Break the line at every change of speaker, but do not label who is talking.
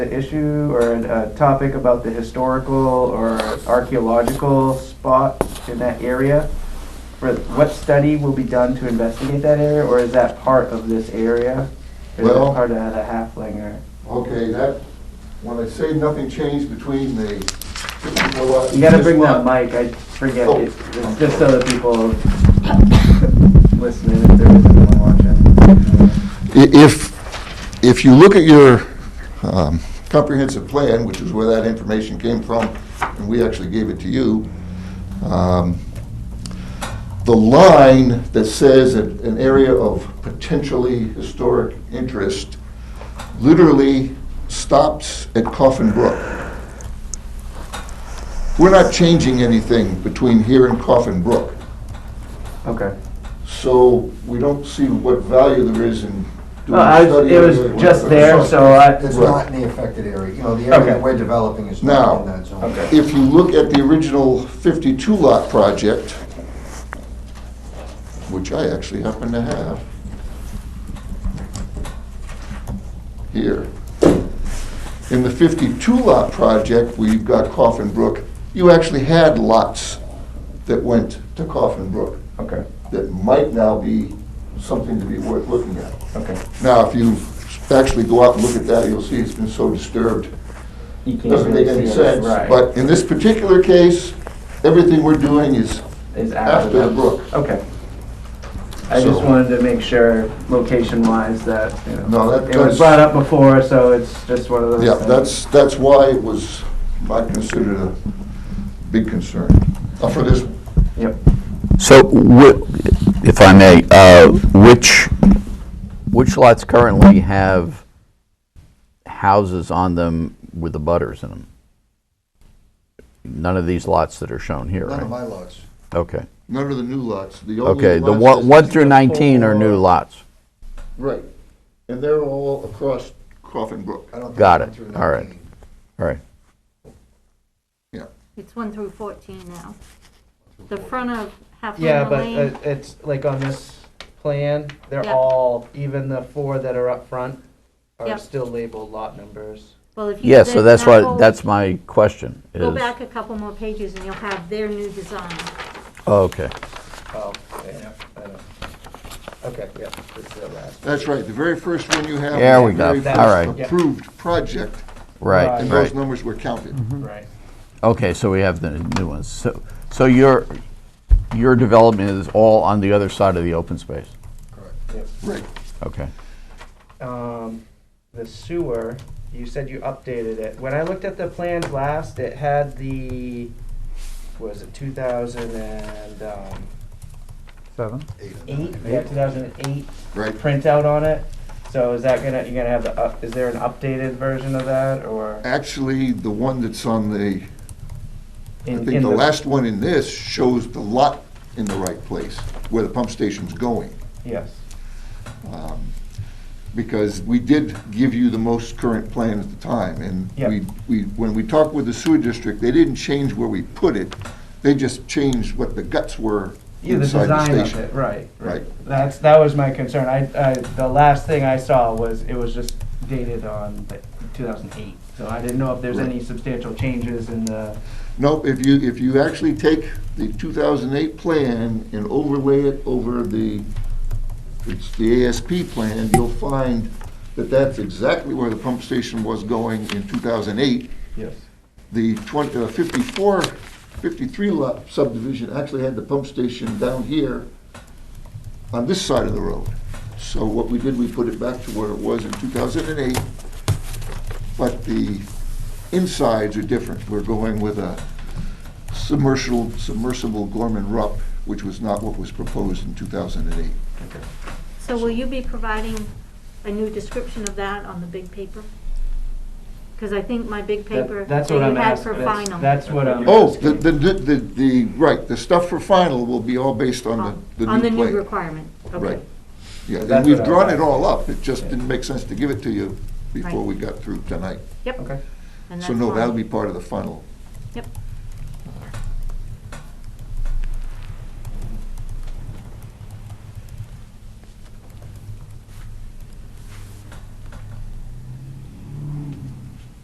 an issue or a a topic about the historical or archaeological spot in that area? For what study will be done to investigate that area, or is that part of this area? Or Is
Well-
that part of the halfling or?
Okay, that, when I say nothing changed between the, what?
You gotta bring that mic, I forget,
Oh.
it's it's just so that people listening, if there is anyone watching.
If, if you look at your um, comprehensive plan, which is where that information came from, and we actually gave it to you, um, the line that says that an area of potentially historic interest literally stops at Coffin Brook. We're not changing anything between here and Coffin Brook.
Okay.
So we don't see what value there is in doing
Well, I
a
was-
study.
it
or
was
doing
just
whatever.
there, so I-
It's
Right.
not in the affected area, you know, the area
Okay.
that we're developing is not in that zone.
Okay.
If you look at the original 52 lot project, which I actually happen to have here, in the 52 lot project, we've got Coffin Brook, you actually had lots that went to Coffin Brook
Okay,
that might now be something to be worth looking at.
okay.
Now, if you actually go out and look at that, you'll see it's been so disturbed.
You can't
Doesn't make
really
any
see it.
sense.
Right.
But in this particular case, everything we're doing is
Is after
after the
that.
brook.
Okay. I
So-
just wanted to make sure, location-wise, that, you know.
No, that
It was
does-
brought up before, so it's just one of those.
Yeah,
things.
that's, that's why it was not considered a big concern Uh, for this.
Yep.
So, whi- if I may, uh, which, which lots currently have houses on them with the butters in them? None of these lots that are shown here,
None of
right?
my lots.
Okay,
None of the new lots, the only
okay, the
lots
one
that's-
one through 19 are new lots.
Right, and they're all across Coffin Brook,
I don't think
Got
I went
it.
through
All right.
19.
All right,
yeah.
It's one through fourteen now. The front of Half
Yeah,
Moon
but
Lane,
uh, it's like on this plan, they're
Yeah.
all, even the four that are up front
Yeah.
are still labeled lot numbers.
well, if you.
yeah, so
there's
that's
that
why,
whole-
that's my question, is...
Go back a couple more pages and you'll have their new design.
Oh, Okay,
Oh, yeah, I know. Okay, yeah, this is the last.
That's right, the very first one you have.
There
is
we
the
go.
very
All
first
right.
Yeah.
Approved project,
right,
and
right.
those numbers were counted.
Right.
Okay, so we have the new ones. So, so your, your development is all on the other side of the open space?
Right,
Okay.
um, the sewer, you said you updated it. When I looked at the plans last, it had the, was it two thousand and, um,
Seven?
Eight and
eight?
nine.
Yeah, two thousand and eight
right.
printout on it. So is that gonna, you're gonna have the, up- is there an updated version of that or?
Actually, the one that's on the, I
in-
think
in
the last one in this shows the lot in the right place, where the pump station's going.
Yes,
Because we did give you the most current plan at the time, and
Yeah.
we, we, when we talked with the sewer district, they didn't change where we put it, they just changed what the guts were
yeah, the
inside the
design of
station.
it, right.
Right,
That's, that was my concern. I, I, the last thing I saw was, it was just dated on two thousand and eight. So I didn't know if there's
Right.
any substantial changes in the.
no, if you, if you actually take the two thousand eight plan and overlay it over the, it's the ASP plan, you'll find that that's exactly where the pump station was going in two thousand eight,
Yes.
the 20, uh, 54, 53 lot subdivision actually had the pump station down here on this side of the road. So what we did, we put it back to where it was in 2008, but the insides are different. We're going with a submersible, submersible Gorman Rupp, which was not what was proposed in 2008.
So will you be providing a new description of that on the big paper? Because I think my big
That-
paper that
That's
you
what I'm
had
asking.
for
That's-
final.
That's what I'm.
Oh, the,
asking.
the, the, the, right, the stuff for final will be all based on the the new plan.
On the new requirement, okay.
Right. Yeah, and
That's
we've
what I
drawn
was
it all up, it just
Yeah.
didn't make sense to give it to you before
Right.
we got through tonight.
Yep.
Okay.
and
So
that's
no, that'll
fine.
be part of the final.
Yep.